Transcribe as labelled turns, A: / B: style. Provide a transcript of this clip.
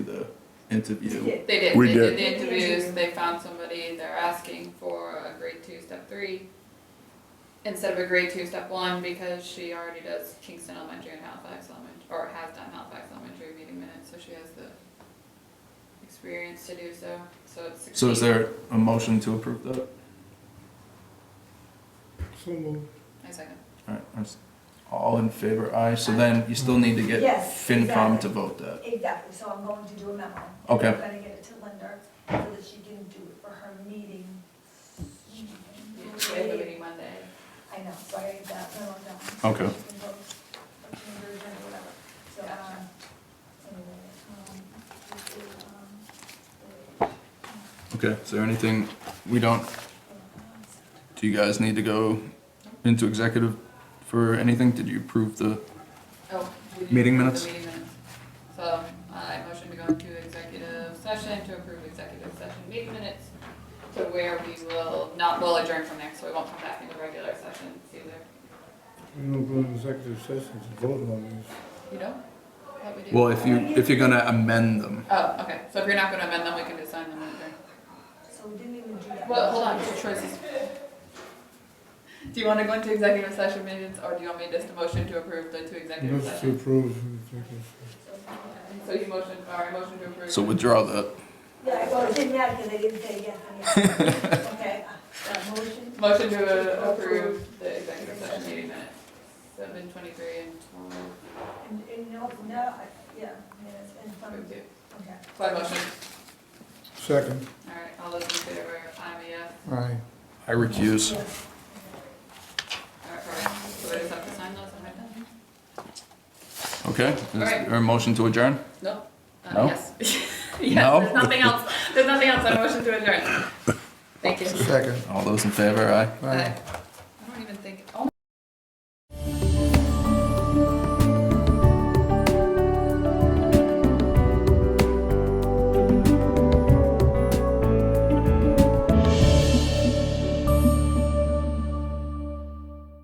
A: the interview.
B: They did.
C: We
B: they
C: did.
B: the interviews. They found somebody. They're asking for a grade two, step three, instead of a grade two, step one, because she already does Kingston Elementary and Halifax Elementary, or has done Halifax Elementary meeting minutes, so she has the experience to do so. So it's. 16.
A: So is there a motion to approve that?
D: So moved.
B: I second.
A: Alright, that's- all in favor, aye, so then you still need to get
E: Yes,
A: FinCom to
E: exactly.
A: vote that.
E: Exactly, so I'm going to do a memo.
A: Okay.
E: I'm gonna get it to Linda so that she can do it for her meeting.
B: We have a meeting Monday.
E: I know, so I need that memo down.
A: Okay.
E: She can vote, or she can do it or whatever. So, um, anyway, um, this is, um,
A: Okay, is there anything, we don't,
E: the-
A: do you guys need to go into executive for anything? Did you approve the,
B: Oh. we did
A: Meeting
B: approve
A: minutes?
B: the Meeting minutes. So uh, I motion to go into executive session to approve executive session meeting minutes to where we will not, we'll adjourn from there, so we won't come back into regular sessions either.
D: We don't go into executive session to vote on this.
B: You don't? Thought we did.
A: well, if you, if you're gonna amend them,
B: Oh, okay, so if you're not gonna amend them, we can just sign them later.
E: So we didn't even do that.
B: Well, hold on, choices. Do you wanna go into executive session minutes, or do you want me just to motion to approve the two executive
D: Move to
B: sessions?
D: approve the executive session.
E: So, uh,
B: So you motion, or I motion to approve.
A: so withdraw that.
E: Yeah, well, it didn't matter because they didn't say yes and yes. Okay, uh, uh, motion?
B: Motion to approve the executive session meeting minutes, seven twenty-three and twelve
E: And, and no, no, I- yeah, minutes and some,
B: thirty-two.
E: okay.
B: So I motion,
D: Second,
B: all right, all those in favor, I'm a yes,
D: aye.
A: I recuse.
E: Yeah.
B: all right, all right, so I just have to sign those, am I done?
A: Okay, is there a motion to adjourn?
B: No.
A: No?
B: Uh, yes.
A: No?
B: Yes, there's nothing else, there's nothing else, I motion to adjourn. Thank you.
D: Second,
A: All those in favor, aye?
B: Bye.
D: aye.
B: I don't even think, oh